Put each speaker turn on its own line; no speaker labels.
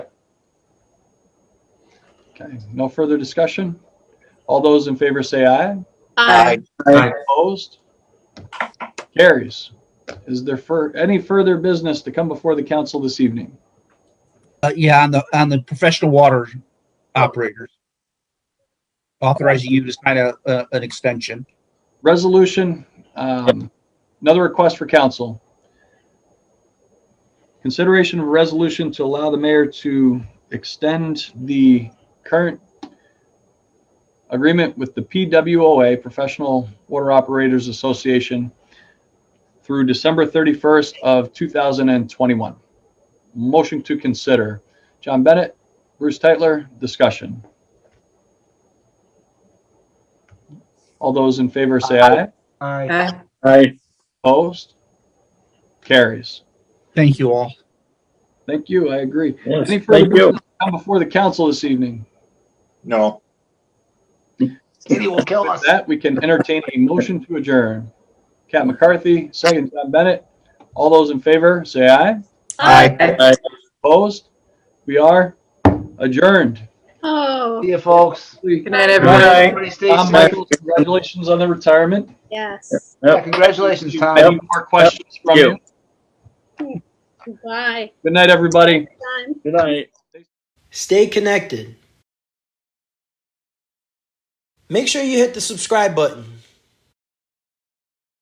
Okay, no further discussion? All those in favor say aye.
Uh,
Aye.
Aye.
Opposed? Carries. Is there for, any further business to come before the council this evening?
Uh, yeah, on the, on the professional water operators. Authorizing you to sign a, a- an extension.
Resolution, um, another request for council. Consideration of resolution to allow the mayor to extend the current agreement with the PWOA, Professional Water Operators Association, through December 31st of 2021. Motion to consider. John Bennett, Bruce Titler, discussion. All those in favor say aye.
Aye.
Aye.
Aye.
Opposed? Carries.
Thank you all.
Thank you, I agree.
Yes,
Any further
Thank you.
business to come before the council this evening?
No. Stevie will kill
With
us.
that, we can entertain a motion to adjourn. Cat McCarthy, second John Bennett. All those in favor, say aye.
Aye.
Aye.
Opposed? We are adjourned.
Oh,
See you, folks.
good night, everyone.
Bye.
Everybody stay
Tom
safe.
Michaels, congratulations on the retirement.
Yes.
Yeah, Congratulations, Tom.
Any more questions from
Yep.
you?
Goodbye.
Good night, everybody.
Done.
Good night.
Stay connected. Make sure you hit the subscribe button.